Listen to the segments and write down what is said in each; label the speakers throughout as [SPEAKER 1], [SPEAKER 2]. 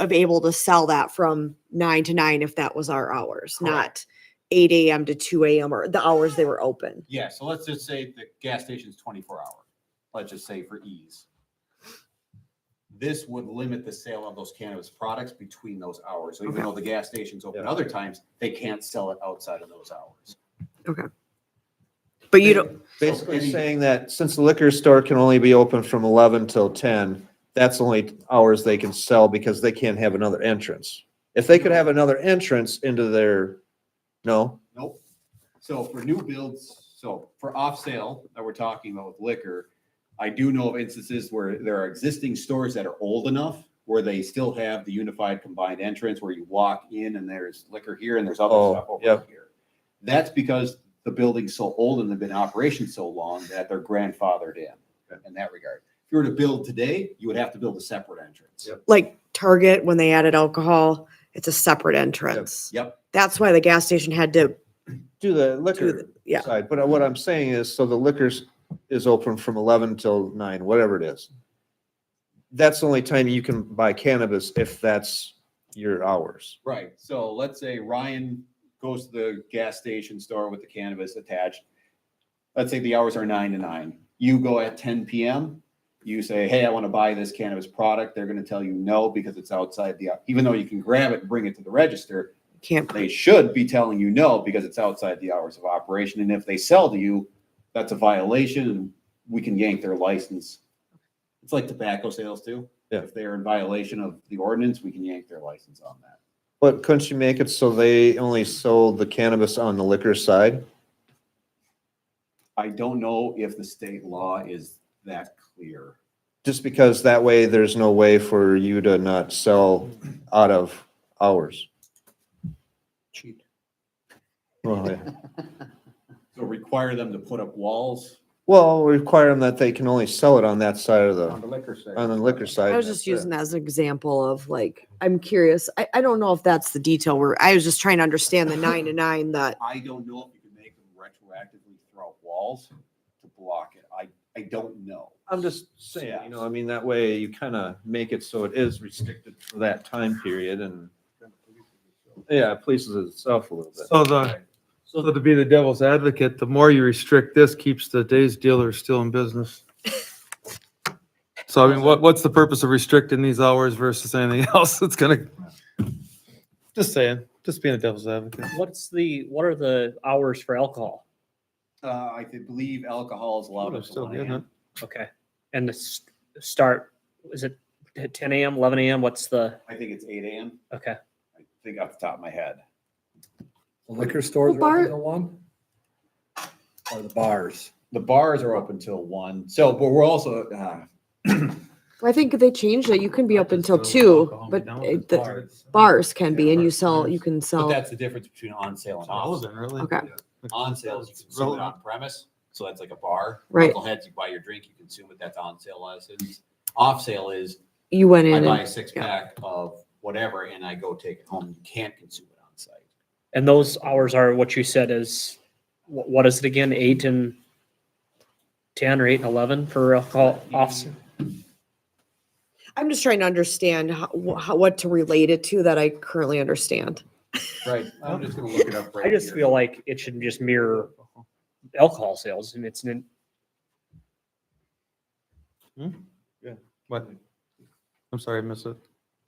[SPEAKER 1] of able to sell that from nine to nine if that was our hours,
[SPEAKER 2] Correct.
[SPEAKER 1] not eight AM to two AM or the hours they were open.
[SPEAKER 2] Yeah, so let's just say the gas station's twenty-four hour, let's just say for ease. This would limit the sale of those cannabis products between those hours. So even
[SPEAKER 1] Okay.
[SPEAKER 2] though the gas station's open
[SPEAKER 3] Yeah.
[SPEAKER 2] other times, they can't sell it outside of those hours.
[SPEAKER 1] But you don't,
[SPEAKER 2] So
[SPEAKER 3] Basically
[SPEAKER 2] any-
[SPEAKER 3] saying that since the liquor store can only be open from eleven till ten, that's only hours they can sell because they can't have another entrance. If they could have another entrance into their, no,
[SPEAKER 2] Nope. So for new builds, so for off sale that we're talking about with liquor, I do know of instances where there are existing stores that are old enough where they still have the unified combined entrance where you walk in and there's liquor here and there's other
[SPEAKER 3] Oh,
[SPEAKER 2] stuff over
[SPEAKER 3] yep.
[SPEAKER 2] here. That's because the building's so old and they've been in operation so long that they're grandfathered in, in that regard. If you were to build today, you would have to build a separate entrance.
[SPEAKER 3] Yep.
[SPEAKER 1] like Target, when they added alcohol, it's a separate entrance.
[SPEAKER 2] Yep.
[SPEAKER 1] That's why the gas station had to,
[SPEAKER 3] do the liquor
[SPEAKER 1] yeah.
[SPEAKER 3] side. But what I'm saying is, so the liquor's is open from eleven till nine, whatever it is. That's the only time you can buy cannabis if that's your hours.
[SPEAKER 2] Right, so let's say Ryan goes to the gas station store with the cannabis attached. Let's say the hours are nine to nine. You go at ten PM, you say, hey, I want to buy this cannabis product. They're gonna tell you no because it's outside the, even though you can grab it and bring it to the register,
[SPEAKER 1] can't,
[SPEAKER 2] they should be telling you no because it's outside the hours of operation. And if they sell to you, that's a violation and we can yank their license. It's like tobacco sales too.
[SPEAKER 3] Yeah.
[SPEAKER 2] If they're in violation of the ordinance, we can yank their license on that.
[SPEAKER 3] But couldn't you make it so they only sold the cannabis on the liquor side?
[SPEAKER 2] I don't know if the state law is that clear.
[SPEAKER 3] Just because that way there's no way for you to not sell out of hours.
[SPEAKER 2] Cheat.
[SPEAKER 3] Well, yeah.
[SPEAKER 2] So require them to put up walls
[SPEAKER 3] Well, require them that they can only sell it on that side of
[SPEAKER 2] on
[SPEAKER 3] the,
[SPEAKER 2] the liquor side.
[SPEAKER 3] on the liquor side.
[SPEAKER 1] I was just using that as an example of like, I'm curious. I, I don't know if that's the detail where, I was just trying to understand the nine to nine that,
[SPEAKER 2] I don't know if you can make them retroactively throw up walls to block it. I, I don't know.
[SPEAKER 3] I'm just saying, you know, I mean, that way you kind of make it so it is restricted for that time period and, yeah, it pleases itself a little bit.
[SPEAKER 4] So the, so to be the devil's advocate, the more you restrict this, keeps the day's dealer still in business. So I mean, what, what's the purpose of restricting these hours versus anything else? It's gonna, just saying, just being a devil's advocate.
[SPEAKER 5] What's the, what are the hours for alcohol?
[SPEAKER 2] Uh, I could believe alcohol is allowed.
[SPEAKER 4] Would've
[SPEAKER 2] at the
[SPEAKER 4] still been
[SPEAKER 2] land.
[SPEAKER 5] Okay. And the s- start, is it at ten AM, eleven AM? What's the,
[SPEAKER 2] I think it's eight AM.
[SPEAKER 5] okay.
[SPEAKER 2] I think off the top of my head.
[SPEAKER 6] The Liquor stores
[SPEAKER 1] Well,
[SPEAKER 6] are open
[SPEAKER 1] bar-
[SPEAKER 6] till one? Or the bars?
[SPEAKER 2] The bars are open till one. So, but we're also, uh,
[SPEAKER 1] I think they changed it. You can be
[SPEAKER 4] I
[SPEAKER 1] up
[SPEAKER 4] just
[SPEAKER 1] until
[SPEAKER 4] know that
[SPEAKER 1] two,
[SPEAKER 4] alcohol
[SPEAKER 1] but
[SPEAKER 4] McDonald's
[SPEAKER 1] it-
[SPEAKER 4] is
[SPEAKER 1] the
[SPEAKER 4] bars.
[SPEAKER 1] bars can be and you
[SPEAKER 4] Bars,
[SPEAKER 1] sell,
[SPEAKER 4] bars.
[SPEAKER 1] you can
[SPEAKER 2] but
[SPEAKER 1] sell.
[SPEAKER 2] that's the difference between on sale
[SPEAKER 4] It's
[SPEAKER 2] and off.
[SPEAKER 4] relevant, really.
[SPEAKER 1] Okay.
[SPEAKER 2] On sales, you consume it on premise, so that's like a bar.
[SPEAKER 1] Right.
[SPEAKER 2] Knuckleheads, you buy your drink, you consume it, that's on sale license. Off sale is
[SPEAKER 1] You went
[SPEAKER 2] I
[SPEAKER 1] in
[SPEAKER 2] buy
[SPEAKER 1] and
[SPEAKER 2] a six
[SPEAKER 1] yeah.
[SPEAKER 2] pack of whatever and I go take it home. You can't consume it on site.
[SPEAKER 5] And those hours are what you said is, wh- what is it again? Eight and ten or eight and eleven for alcohol off?
[SPEAKER 1] I'm just trying to understand how, wh- how, what to relate it to that I currently understand.
[SPEAKER 2] Right. I'm just gonna look it up right
[SPEAKER 5] I just
[SPEAKER 2] here.
[SPEAKER 5] feel like it should just mirror alcohol sales and it's, an-
[SPEAKER 4] What? I'm sorry, I missed it.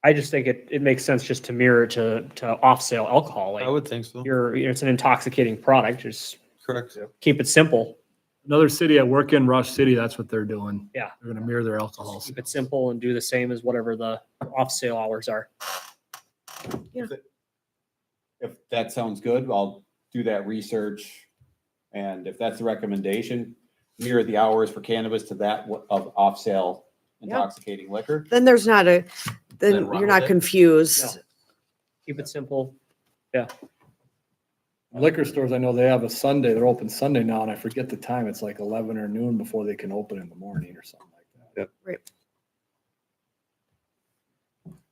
[SPEAKER 5] I just think it, it makes sense just to mirror to, to off sale alcohol.
[SPEAKER 4] I
[SPEAKER 5] Like
[SPEAKER 4] would think so.
[SPEAKER 5] you're, it's an intoxicating product. Just
[SPEAKER 4] Correct.
[SPEAKER 5] keep it simple.
[SPEAKER 6] Another city I work in, Rush City, that's what they're doing.
[SPEAKER 5] Yeah.
[SPEAKER 6] They're gonna mirror their alcohol.
[SPEAKER 5] Keep it simple and do the same as whatever the off sale hours are.
[SPEAKER 2] If that sounds good, I'll do that research. And if that's the recommendation, mirror the hours for cannabis to that wa- of off sale
[SPEAKER 1] Yeah.
[SPEAKER 2] intoxicating liquor.
[SPEAKER 1] Then there's not a, then
[SPEAKER 2] wrong
[SPEAKER 1] you're
[SPEAKER 2] with
[SPEAKER 1] not
[SPEAKER 2] it?
[SPEAKER 1] confused.
[SPEAKER 5] Keep it simple.
[SPEAKER 6] Liquor stores, I know they have a Sunday, they're open Sunday now, and I forget the time, it's like eleven or noon before they can open in the morning or something like that.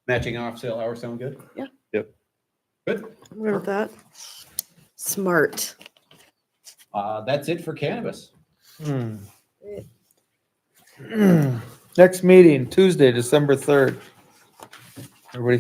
[SPEAKER 2] Matching off sale hours sound good?
[SPEAKER 1] Yeah.
[SPEAKER 3] Yep.
[SPEAKER 2] Good.
[SPEAKER 1] I'm good with that. Smart.
[SPEAKER 2] Uh, that's it for cannabis.
[SPEAKER 4] Hmm. Next meeting, Tuesday, December third. Everybody